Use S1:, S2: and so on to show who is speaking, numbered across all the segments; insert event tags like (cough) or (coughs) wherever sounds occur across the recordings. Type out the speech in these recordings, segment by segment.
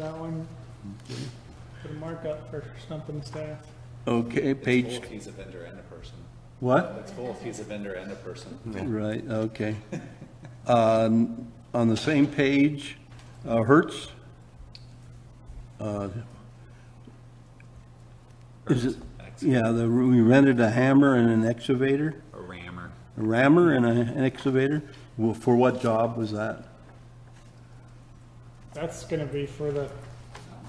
S1: that one. Put a markup for stumping staff.
S2: Okay,
S3: It's
S2: page,
S3: full if he's a vendor and a person.
S2: what?
S3: It's full if he's a vendor and a person.
S2: Right, okay. Um, On the same page, uh, Hertz? uh, Is it, yeah, the, we rented a hammer and an excavator,
S3: A rammer.
S2: a rammer and a- an excavator. Well, For what job was that?
S1: That's gonna be for the,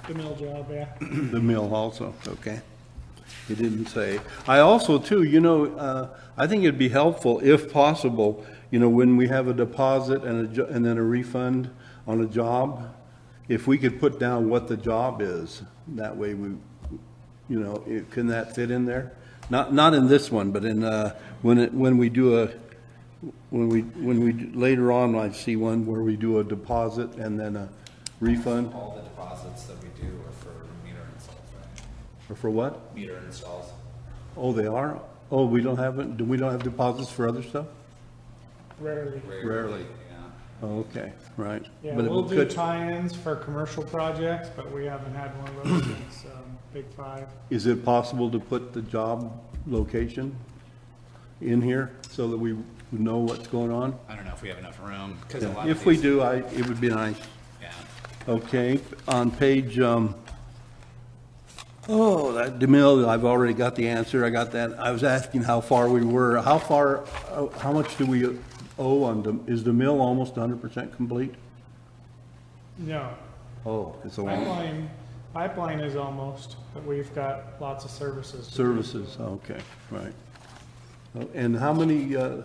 S1: the mill job, yeah.
S2: The mill also, okay. He didn't say. I also, too, you know, uh, I think it'd be helpful, if possible, you know, when we have a deposit and a, jo- and then a refund on a job, if we could put down what the job is, that way we, you know, it- can that fit in there? Not, not in this one, but in, uh, when it, when we do a, when we, when we, later on, I see one where we do a deposit and then a refund,
S3: All the deposits that we do are for meter installs, right?
S2: or for what?
S3: Meter installs.
S2: Oh, they are? Oh, we don't have, it. do we don't have deposits for other stuff?
S1: Rarely.
S2: Rarely.
S3: Yeah.
S2: Oh, okay, right.
S1: Yeah,
S2: But it
S1: we'll do
S2: could-
S1: tie-ins for commercial projects, but we haven't had one of those since, um, Big Five.
S2: Is it possible to put the job location in here so that we know what's going on?
S3: I don't know if we have enough room, because a lot of
S2: If we
S3: these,
S2: do, I, it would be nice.
S3: yeah.
S2: Okay, on page, um, oh, that DeMille, I've already got the answer, I got that. I was asking how far we were, how far, oh, how much do we owe on, Dem- is DeMille almost hundred percent complete?
S1: No,
S2: Oh, it's a long.
S1: pipeline, pipeline is almost, but we've got lots of services. to do.
S2: Services, okay, right. Oh, And how many, uh,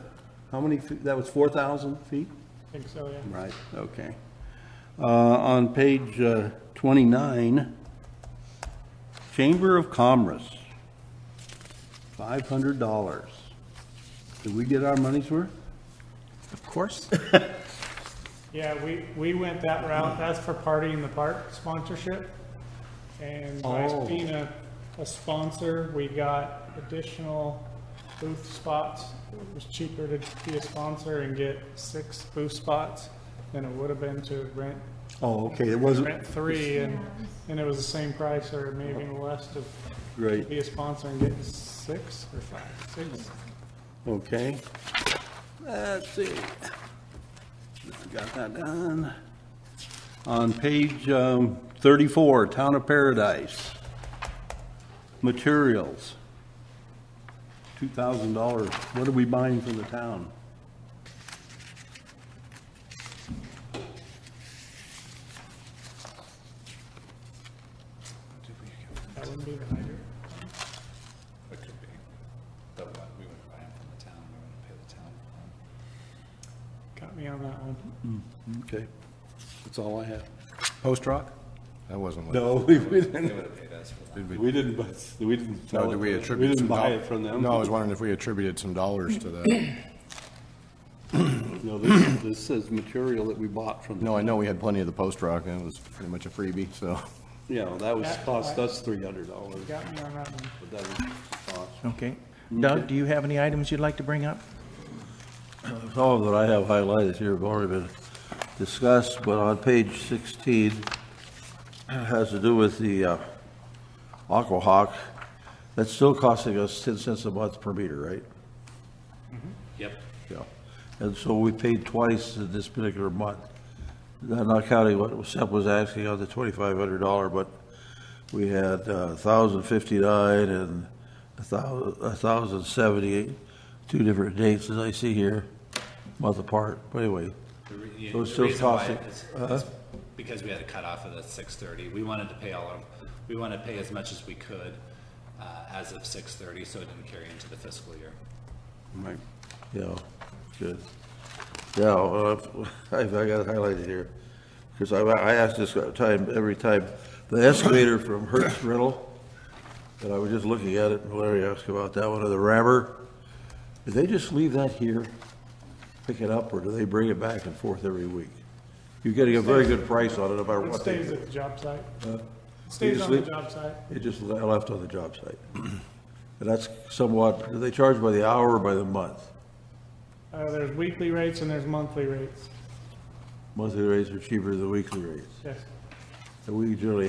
S2: how many, fe- that was 4,000 feet?
S1: I think so, yeah.
S2: Right. Okay. Uh, On page uh, 29, Chamber of Commerce, $500. Did we get our money's worth?
S4: Of course.
S1: Yeah, we, we went that route, that's for Party in the Park sponsorship. And by
S2: Oh.
S1: being a, a sponsor, we got additional booth spots. It was cheaper to be a sponsor and get six booth spots than it would have been to rent,
S2: Oh, okay, it wasn't,
S1: rent three, and, and it was the same price or maybe even less to
S2: great,
S1: be a sponsor and get six or five, six.
S2: okay. Let's see. Got that done. On page um, 34, Town of Paradise, materials, $2,000. What are we buying for the town?
S1: That wouldn't be the hydrant.
S3: It could be. The what, we wouldn't buy them from the town, we wouldn't pay the town. for
S1: Got me on that one.
S2: Okay, that's all I have.
S4: Post Rock?
S5: That wasn't what,
S2: No, (laughs) we
S3: them. They
S2: didn't,
S3: would have paid us for that.
S2: we didn't, buy- we didn't sell
S5: no,
S2: it.
S5: did
S2: to
S5: we
S2: them.
S5: attribute?
S2: We didn't
S5: some
S2: buy
S5: dol-
S2: it from them.
S5: No, I was wondering if we attributed some dollars to
S2: (coughs)
S5: that.
S2: No, this, this says material that we bought from them.
S5: No, I know we had plenty of the post rock, and it was pretty much a freebie, so.
S2: Yeah, that was,
S1: That-
S2: cost us $300,
S1: Got me on that one.
S2: but that was cost.
S4: Okay. Doug, do you have any items you'd like to bring up?
S6: Some of that I have highlighted here have already been discussed, but on page 16, it has to do with the uh, Aquahawk. That's still costing us 10 cents a month per meter, right?
S3: Yep.
S6: Yeah. And so we paid twice in this particular month. Not not counting what Sepp was asking on the $2,500, but we had uh, 1,059 and a thou- 1,078, two different dates, as I see here, month apart. But anyway,
S3: The re- you-
S6: So it's
S3: the
S6: still
S3: reason why
S6: costing-
S3: is-
S2: Uh-huh.
S3: is Because we had a cutoff of the six thirty, we wanted to pay all of, we wanted to pay as much as we could, uh, as of six thirty, so it didn't carry into the fiscal year.
S2: Right.
S6: Yeah, good. Yeah, well, I've- I've, (laughs) I got it highlighted here, because I, I ask this time, every time, the excavator from Hertz Rental, and I was just looking at it, and Larry asked about that one, or the rammer, do they just leave that here, pick it up, or do they bring it back and forth every week? You're getting a very good price on it, no matter
S1: It
S6: what they
S1: stays
S6: do. Uh,
S1: at the job site. Stays
S6: just
S1: on the
S6: leave-
S1: job site.
S6: It just le- left on the job site. (clears throat) And that's somewhat, do they charge by the hour or by the month?
S1: Uh, there's weekly rates and there's monthly rates.
S6: Monthly rates are cheaper than weekly rates.
S1: Yes.
S6: that we generally